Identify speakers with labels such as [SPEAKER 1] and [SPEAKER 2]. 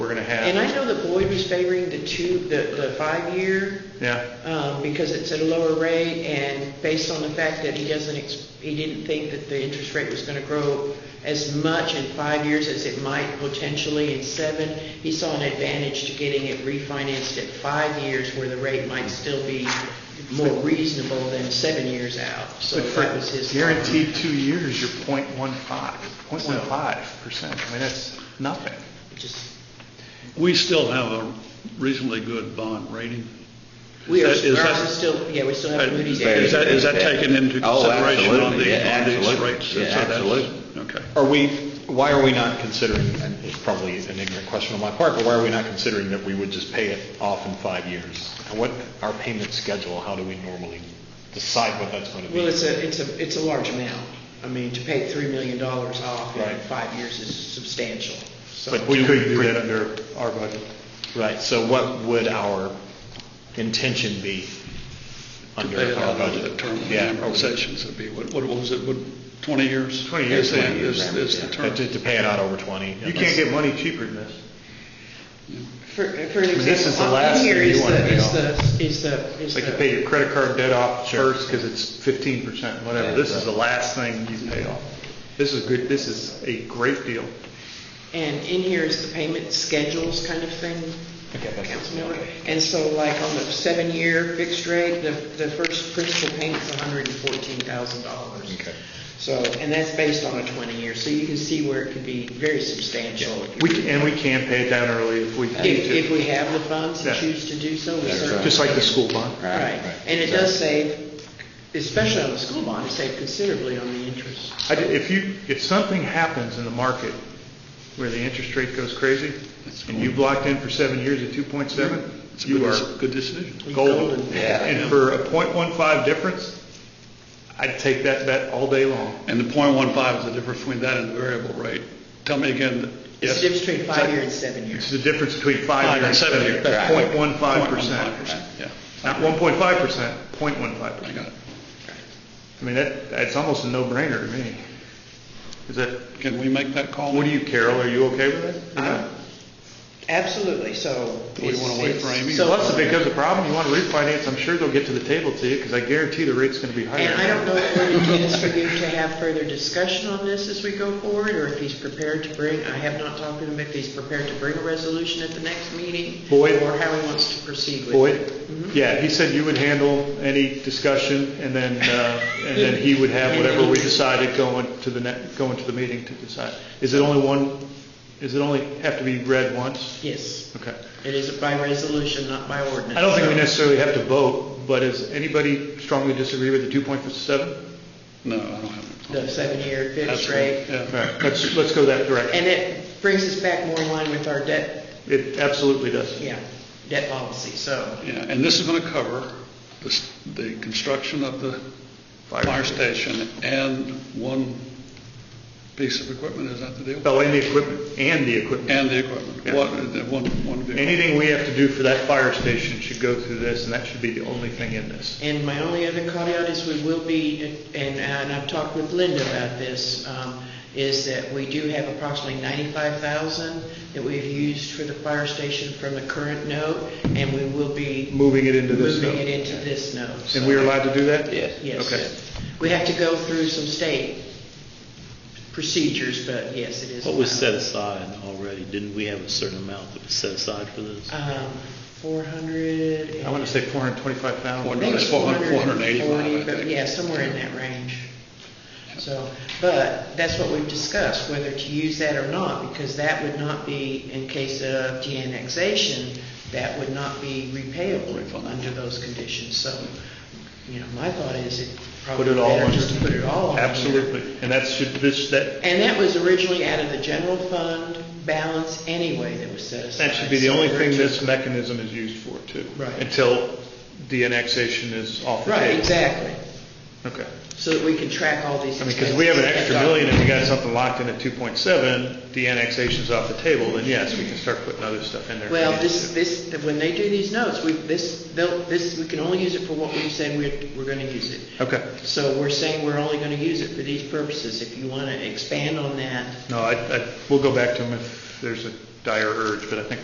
[SPEAKER 1] half.
[SPEAKER 2] And I know that Boyd was favoring the two, the, the five-year,
[SPEAKER 1] Yeah,
[SPEAKER 2] um, because it's at a lower rate, and based on the fact that he doesn't, ex- he didn't think that the interest rate was gonna grow as much in five years as it might potentially in seven, he saw an advantage to getting it refinanced at five years, where the rate might still be more reasonable than seven years out, so
[SPEAKER 1] but
[SPEAKER 2] that was his.
[SPEAKER 1] for guaranteed two years, you're .15, .15 percent. I mean, that's nothing.
[SPEAKER 2] Just-
[SPEAKER 3] We still have a reasonably good bond rating.
[SPEAKER 2] We are,
[SPEAKER 3] Is that- is that-
[SPEAKER 2] ours is still, yeah, we still
[SPEAKER 3] Uh,
[SPEAKER 2] have Moody's.
[SPEAKER 3] Is that, is that
[SPEAKER 4] Yeah.
[SPEAKER 3] taken into
[SPEAKER 4] Oh,
[SPEAKER 3] consideration on
[SPEAKER 4] absolutely.
[SPEAKER 3] the,
[SPEAKER 4] Yeah,
[SPEAKER 3] on these
[SPEAKER 4] absolutely.
[SPEAKER 3] rates?
[SPEAKER 4] Yeah,
[SPEAKER 3] So that's-
[SPEAKER 4] absolutely.
[SPEAKER 3] Okay.
[SPEAKER 5] Are we, why are we not considering, and it's probably an ignorant question on my part, but why are we not considering that we would just pay it off in five years? And what, our payment schedule, how do we normally decide what that's going to be?
[SPEAKER 2] Well, it's a, it's a, it's a large amount. I mean, to pay $3 million off in
[SPEAKER 5] Right.
[SPEAKER 2] five years is substantial. So
[SPEAKER 5] But
[SPEAKER 1] We
[SPEAKER 5] do
[SPEAKER 1] couldn't do
[SPEAKER 5] we-
[SPEAKER 1] that under our budget.
[SPEAKER 5] Right, so what would our intention be under
[SPEAKER 3] They had
[SPEAKER 5] our
[SPEAKER 3] all the
[SPEAKER 5] budget?
[SPEAKER 3] term of
[SPEAKER 5] Yeah.
[SPEAKER 3] the sessions would be, what, what was it, what, 20 years?
[SPEAKER 1] 20 years,
[SPEAKER 3] Is the-
[SPEAKER 5] 20 years,
[SPEAKER 3] Is, is the
[SPEAKER 5] yeah.
[SPEAKER 3] term.
[SPEAKER 5] To, to pay it out over 20.
[SPEAKER 1] You can't get money cheaper than this.
[SPEAKER 2] For, for an example.
[SPEAKER 5] This is the
[SPEAKER 2] on- in
[SPEAKER 5] last
[SPEAKER 2] here
[SPEAKER 5] thing you
[SPEAKER 2] is
[SPEAKER 5] wanna
[SPEAKER 2] the-
[SPEAKER 5] pay
[SPEAKER 2] is
[SPEAKER 5] off.
[SPEAKER 2] the- Is the, is
[SPEAKER 1] It's like you
[SPEAKER 2] the-
[SPEAKER 1] pay your credit card debt off
[SPEAKER 5] Sure.
[SPEAKER 1] first because it's fifteen percent, whatever.
[SPEAKER 5] Yeah,
[SPEAKER 1] This is
[SPEAKER 5] exactly.
[SPEAKER 1] the last thing you pay off. This is good, this is a great deal.
[SPEAKER 2] and in here is the payment schedules kind of thing,
[SPEAKER 5] Okay, that's-
[SPEAKER 2] Councilmember. And so like on the seven-year fixed rate, the, the first principal payment's $114,000.
[SPEAKER 5] Okay.
[SPEAKER 2] So, and that's based on a 20-year, so you can see where it could be very substantial. if you
[SPEAKER 1] We, can- and we can pay it down early if we
[SPEAKER 2] If,
[SPEAKER 1] need
[SPEAKER 2] if
[SPEAKER 1] to,
[SPEAKER 2] we have the funds and
[SPEAKER 1] Yeah.
[SPEAKER 2] choose to do so, we
[SPEAKER 4] That's
[SPEAKER 2] certainly.
[SPEAKER 4] right.
[SPEAKER 1] just like the
[SPEAKER 2] can.
[SPEAKER 1] school bond.
[SPEAKER 4] Right,
[SPEAKER 2] Right,
[SPEAKER 4] right,
[SPEAKER 2] and it does save, especially on the school bond, it saved considerably on the interest.
[SPEAKER 1] I did- If you, if something happens in the market where the interest rate goes crazy and you've locked in for seven years at two point seven,
[SPEAKER 3] It's a
[SPEAKER 1] you
[SPEAKER 3] good,
[SPEAKER 1] are
[SPEAKER 3] dec- good decision.
[SPEAKER 1] golden.
[SPEAKER 2] Golden.
[SPEAKER 4] Yeah.
[SPEAKER 1] And for a .15 difference, I'd take that bet all day long.
[SPEAKER 3] And the .15 is the difference between that and the variable rate. Tell me again,
[SPEAKER 2] It's
[SPEAKER 3] yes?
[SPEAKER 2] the difference between
[SPEAKER 3] Is that-
[SPEAKER 2] five-year and seven-year.
[SPEAKER 1] It's the difference between five
[SPEAKER 3] Five
[SPEAKER 1] year
[SPEAKER 3] and
[SPEAKER 1] and
[SPEAKER 3] seven
[SPEAKER 1] seven
[SPEAKER 3] year.
[SPEAKER 1] year. That's
[SPEAKER 4] Right.
[SPEAKER 1] point one five percent.
[SPEAKER 3] 0.15%, Yeah,
[SPEAKER 1] Not one point five percent, point one five
[SPEAKER 3] I
[SPEAKER 1] percent.
[SPEAKER 3] got it.
[SPEAKER 1] I mean, that, that's almost a no-brainer to me. Is that,
[SPEAKER 3] Can we make that call?
[SPEAKER 1] what do you, Carol, are you okay with that?
[SPEAKER 2] Uh, Absolutely, so.
[SPEAKER 3] Do we
[SPEAKER 2] it's-
[SPEAKER 3] wanna wait for
[SPEAKER 2] it's-
[SPEAKER 3] Amy or-
[SPEAKER 2] so-
[SPEAKER 1] Plus, if it becomes a problem, you want to refinance, I'm sure they'll get to the table to you, because I guarantee the rate's going to be higher.
[SPEAKER 2] And I don't know if it intends for you to have further discussion on this as we go forward, or if he's prepared to bring, I have not talked to him, if he's prepared to bring a resolution at the next meeting.
[SPEAKER 1] Boyd?
[SPEAKER 2] Or how he wants to proceed with it.
[SPEAKER 1] Boyd? Yeah, he said you would handle any discussion, and then, uh, and then he would have whatever we decided going to the net, going to the meeting to decide. Is it only one, is it only have to be read once?
[SPEAKER 2] Yes,
[SPEAKER 1] Okay.
[SPEAKER 2] it is by resolution, not by ordinance.
[SPEAKER 1] I don't think we necessarily have to vote, but does anybody strongly disagree with the two point seven?
[SPEAKER 3] No, I don't have it.
[SPEAKER 2] The seven-year fixed
[SPEAKER 3] Absolutely,
[SPEAKER 2] rate.
[SPEAKER 3] yeah.
[SPEAKER 1] Let's, let's go that direction.
[SPEAKER 2] And it brings us back more in line with our debt,
[SPEAKER 1] It absolutely does.
[SPEAKER 2] yeah, debt policy, so.
[SPEAKER 3] Yeah, and this is going to cover the, s- the construction of the fire station and one piece of equipment, is that the deal?
[SPEAKER 1] Oh, and the equipment, and the equipment.
[SPEAKER 3] And the equipment,
[SPEAKER 1] Yeah.
[SPEAKER 3] one, the one, one vehicle.
[SPEAKER 1] Anything we have to do for that fire station should go through this, and that should be the only thing in this.
[SPEAKER 2] And my only other caveat is we will be, and, and I've talked with Linda about this, um, is that we do have approximately ninety-five thousand that we've used for the fire station from the current note, and we will be
[SPEAKER 1] Moving it into this
[SPEAKER 2] moving it
[SPEAKER 1] note.
[SPEAKER 2] into this note.
[SPEAKER 1] And we are allowed to do that?
[SPEAKER 4] Yes.
[SPEAKER 1] Okay.
[SPEAKER 2] Yes. We have to go through some state procedures, but yes, it is.
[SPEAKER 6] What was
[SPEAKER 2] allowed.
[SPEAKER 6] set aside already? Didn't we have a certain amount that was set aside for this?
[SPEAKER 2] Um, four hundred.
[SPEAKER 1] I want to say four hundred and twenty-five
[SPEAKER 3] Four
[SPEAKER 1] thousand.
[SPEAKER 3] hundred. It's 400, 485, I
[SPEAKER 2] 440, but
[SPEAKER 3] think.
[SPEAKER 2] Yeah, somewhere in that range. So, but that's what we've discussed, whether to use that or not, because that would not be, in case of de-annexation, that would not be repayable
[SPEAKER 3] Refundable.
[SPEAKER 2] under those conditions. So, you know, my thought is it
[SPEAKER 1] Put
[SPEAKER 2] probably
[SPEAKER 1] it all
[SPEAKER 2] better
[SPEAKER 1] on.
[SPEAKER 2] just to put it all on here.
[SPEAKER 1] Absolutely. And that should, this, that,
[SPEAKER 2] And that was originally out of the general fund balance anyway that was set aside.
[SPEAKER 1] that should be the only
[SPEAKER 2] So
[SPEAKER 1] thing
[SPEAKER 2] we're just-
[SPEAKER 1] this mechanism is used for, too.
[SPEAKER 2] Right.
[SPEAKER 1] Until the annexation is off the table.
[SPEAKER 2] Right, exactly,
[SPEAKER 1] Okay.
[SPEAKER 2] so that we can track all these
[SPEAKER 1] I mean,
[SPEAKER 2] expenses.
[SPEAKER 1] because we have an extra
[SPEAKER 2] That's all.
[SPEAKER 1] million and we got something locked in at two point seven, the annexation's off the table, then yes, we can start putting other stuff in there. if we
[SPEAKER 2] Well,
[SPEAKER 1] need
[SPEAKER 2] this,
[SPEAKER 1] to.
[SPEAKER 2] this, when they do these notes, we, this, they'll, this, we can only use it for what we said we're, we're gonna use it.
[SPEAKER 1] Okay.
[SPEAKER 2] So we're saying we're only gonna use it for these purposes. If you wanna expand on that,
[SPEAKER 1] No, I, I, we'll go back to them if there's a dire urge, but I think